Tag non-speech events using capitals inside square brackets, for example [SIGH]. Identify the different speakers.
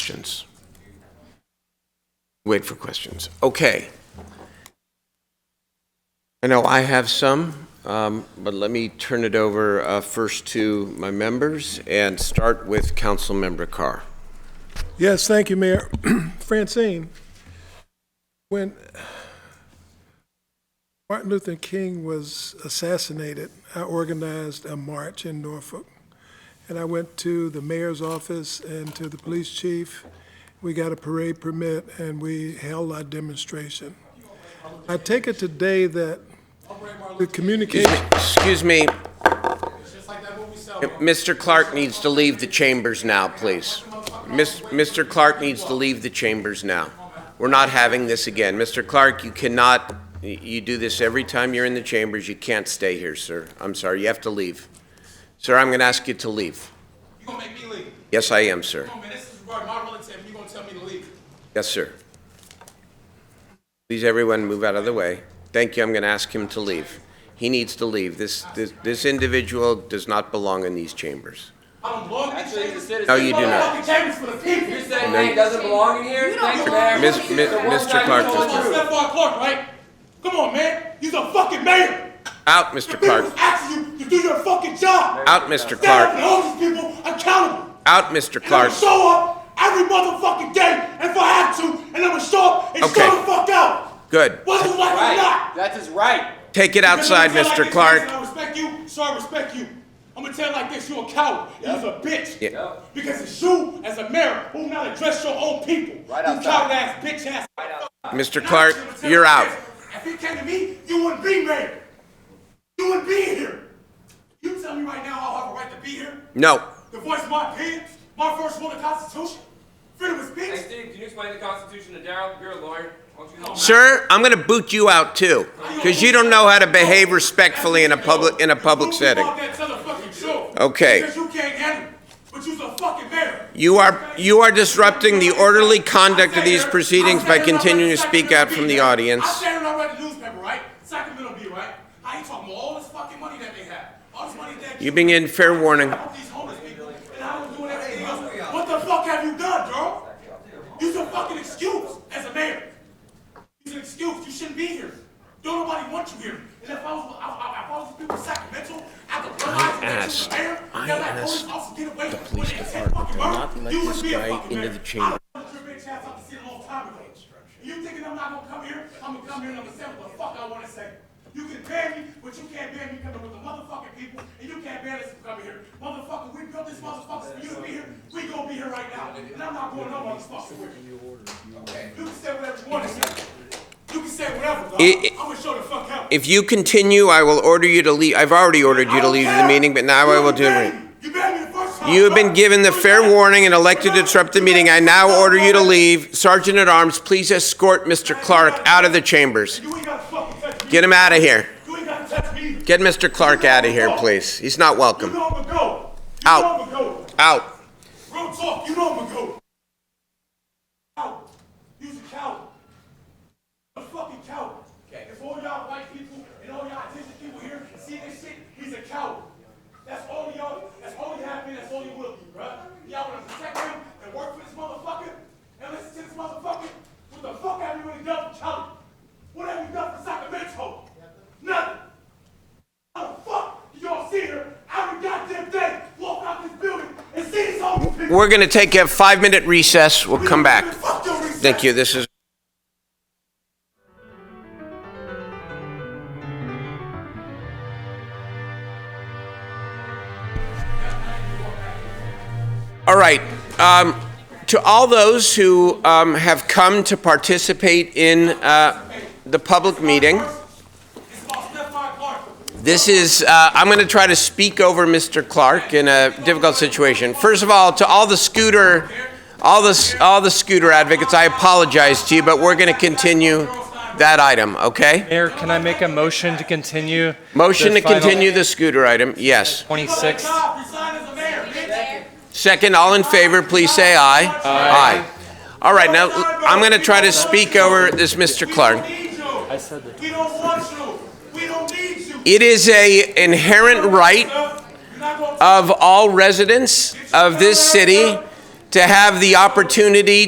Speaker 1: questions? Wait for questions. Okay. I know I have some, um, but let me turn it over uh, first to my members and start with Councilmember Carr.
Speaker 2: Yes, thank you, Mayor. [CLEARS THROAT] Francine, when Martin Luther King was assassinated, I organized a march in Norfolk. And I went to the mayor's office and to the police chief. We got a parade permit and we held our demonstration. I take it today that the communication,
Speaker 1: Excuse me. Mr. Clark needs to leave the chambers now, please. Miss- Mr. Clark needs to leave the chambers now. We're not having this again. Mr. Clark, you cannot, y- you do this every time you're in the chambers. You can't stay here, sir. I'm sorry, you have to leave. Sir, I'm going to ask you to leave.
Speaker 3: You gonna make me leave?
Speaker 1: Yes, I am, sir.
Speaker 3: Come on, man, this is regarding my relative, and you gonna tell me to leave?
Speaker 1: Yes, sir. Please, everyone, move out of the way. Thank you, I'm going to ask him to leave. He needs to leave. This, this- this individual does not belong in these chambers.
Speaker 3: I don't belong in the
Speaker 4: Actually, he's a
Speaker 3: chambers.
Speaker 4: citizen.
Speaker 1: No, you do not.
Speaker 3: Fucking chambers for the people.
Speaker 4: You're saying that he doesn't belong in here? Thanks, Mayor.
Speaker 1: Miss-
Speaker 4: The
Speaker 1: mi-
Speaker 4: one
Speaker 1: Mr.
Speaker 4: guy who
Speaker 1: Clark
Speaker 4: told
Speaker 1: just-
Speaker 4: the truth.
Speaker 3: Stephon Clark, right? Come on, man, he's a fucking mayor.
Speaker 1: Out,
Speaker 3: The
Speaker 1: Mr.
Speaker 3: people's
Speaker 1: Clark.
Speaker 3: asking you to do your fucking job.
Speaker 1: Out, Mr.
Speaker 3: Stand up and
Speaker 1: Clark.
Speaker 3: hold these people accountable.
Speaker 1: Out, Mr.
Speaker 3: And I'm
Speaker 1: Clark.
Speaker 3: gonna show up every motherfucking day if I have to, and I'm gonna show up and
Speaker 1: Okay.
Speaker 3: show the fuck out.
Speaker 1: Good.
Speaker 3: Whether you like it or
Speaker 4: Right,
Speaker 3: not.
Speaker 4: that's his right.
Speaker 1: Take it
Speaker 3: Because
Speaker 1: outside,
Speaker 3: I'm gonna tell
Speaker 1: Mr.
Speaker 3: like this,
Speaker 1: Clark.
Speaker 3: I respect you, so I respect you. I'm gonna tell it like this, you a coward. You's a bitch.
Speaker 1: Yeah.
Speaker 4: Yep.
Speaker 3: Because it's you as a mayor who not address your own people.
Speaker 4: Right
Speaker 3: you
Speaker 4: outside.
Speaker 3: coward ass bitch ass.
Speaker 1: Mr.
Speaker 3: And I'm
Speaker 1: Clark,
Speaker 3: just gonna tell
Speaker 1: you're
Speaker 3: you
Speaker 1: out.
Speaker 3: this, If he came to me, you wouldn't be mayor. You wouldn't be here. You tell me right now I have a right to be here?
Speaker 1: No.
Speaker 3: The voice of my opinions, my first rule of the Constitution, freedom of speech.
Speaker 4: Hey, Steve, can you explain the Constitution to Daryl? You're a lawyer. Why don't you help him?
Speaker 1: Sir, I'm going to boot you out too, because you don't know how to behave respectfully in a public, in a public
Speaker 3: You
Speaker 1: setting.
Speaker 3: want that to the fucking truth.
Speaker 1: Okay.
Speaker 3: Because you can't handle it, but you's a fucking mayor.
Speaker 1: You are, you are disrupting the orderly conduct of these proceedings by continuing to speak out from the
Speaker 3: I
Speaker 1: audience.
Speaker 3: said it already in the newspaper, right? Sacramento Bee, right? I ain't talking about all this fucking money that they have. All this money that
Speaker 1: You've been getting fair warning.
Speaker 3: help these homeless people, and I don't do everything else. What the fuck have you done, girl? You's a fucking excuse as a mayor. You's an excuse. You shouldn't be here. Don't nobody want you here. And if I was, I, I, if I was the people of Sacramento, I could realize that
Speaker 1: asked-
Speaker 3: you're the mayor.
Speaker 1: I
Speaker 3: that
Speaker 1: asked
Speaker 3: police officer get away the
Speaker 1: police department to not let this guy into the chamber.
Speaker 3: I was your bitch ass out to see a long time ago. You thinking I'm not gonna come here? I'm gonna come here and I'm gonna say what the fuck I wanna say. You can ban me, but you can't ban me coming with the motherfucking people, and you can't ban us from coming here. Motherfucker, we built this motherfucker for you to be here. We gonna be here right now, and I'm not going no motherfucking where. You can say whatever you wanna say. You can say whatever, dog.
Speaker 1: It- it-
Speaker 3: I'm gonna show the fuck out.
Speaker 1: If you continue, I will order you to leave. I've already ordered you to leave the meeting, but now I will do it.
Speaker 3: it.
Speaker 1: You have been given the fair warning and elected to disrupt the meeting. I now order you to leave. Sergeant at Arms, please escort Mr. Clark out of the chambers. Get him out of here.
Speaker 3: You ain't gotta touch me.
Speaker 1: Get Mr. Clark out of here, please. He's not
Speaker 3: You
Speaker 1: welcome.
Speaker 3: know I'm a go. You
Speaker 1: Out.
Speaker 3: know I'm a go.
Speaker 1: Out.
Speaker 3: Real talk, you know I'm a go. Out. You's a coward. A fucking coward. If all y'all white people and all y'all attention people here see this shit, he's a coward. That's all y'all, that's all you have been, that's all you will be, bruh. Y'all wanna protect him and work for this motherfucker and listen to this motherfucker? What the fuck have you really done for Charlie? What have you done for Sacramento? Nothing. How the fuck do y'all see her every goddamn day walk out this building and see this whole people?
Speaker 1: We're going to take a five minute recess. We'll come back.
Speaker 3: Fuck your research.
Speaker 1: Thank you. This is. All right. Um, to all those who um, have come to participate in uh, the public meeting,
Speaker 3: It's about Stephon Clark.
Speaker 1: this is, uh, I'm going to try to speak over Mr. Clark in a difficult situation. First of all, to all the scooter, all the, s- all the scooter advocates, I apologize to you, but we're going to continue that item, okay?
Speaker 5: Mayor, can I make a motion to continue?
Speaker 1: Motion
Speaker 5: the
Speaker 1: to
Speaker 5: final
Speaker 1: continue the scooter item, yes.
Speaker 5: 26th.
Speaker 3: God, resign as a mayor, bitch.
Speaker 1: Second, all in favor, please say aye. Aye. All right, now, I'm going to try to speak over this Mr.
Speaker 3: We
Speaker 1: Clark.
Speaker 3: don't need you. I said that. We don't want you. We don't need you.
Speaker 1: It is a inherent right
Speaker 3: uh, You're not gonna-
Speaker 1: of all residents of this city to have the opportunity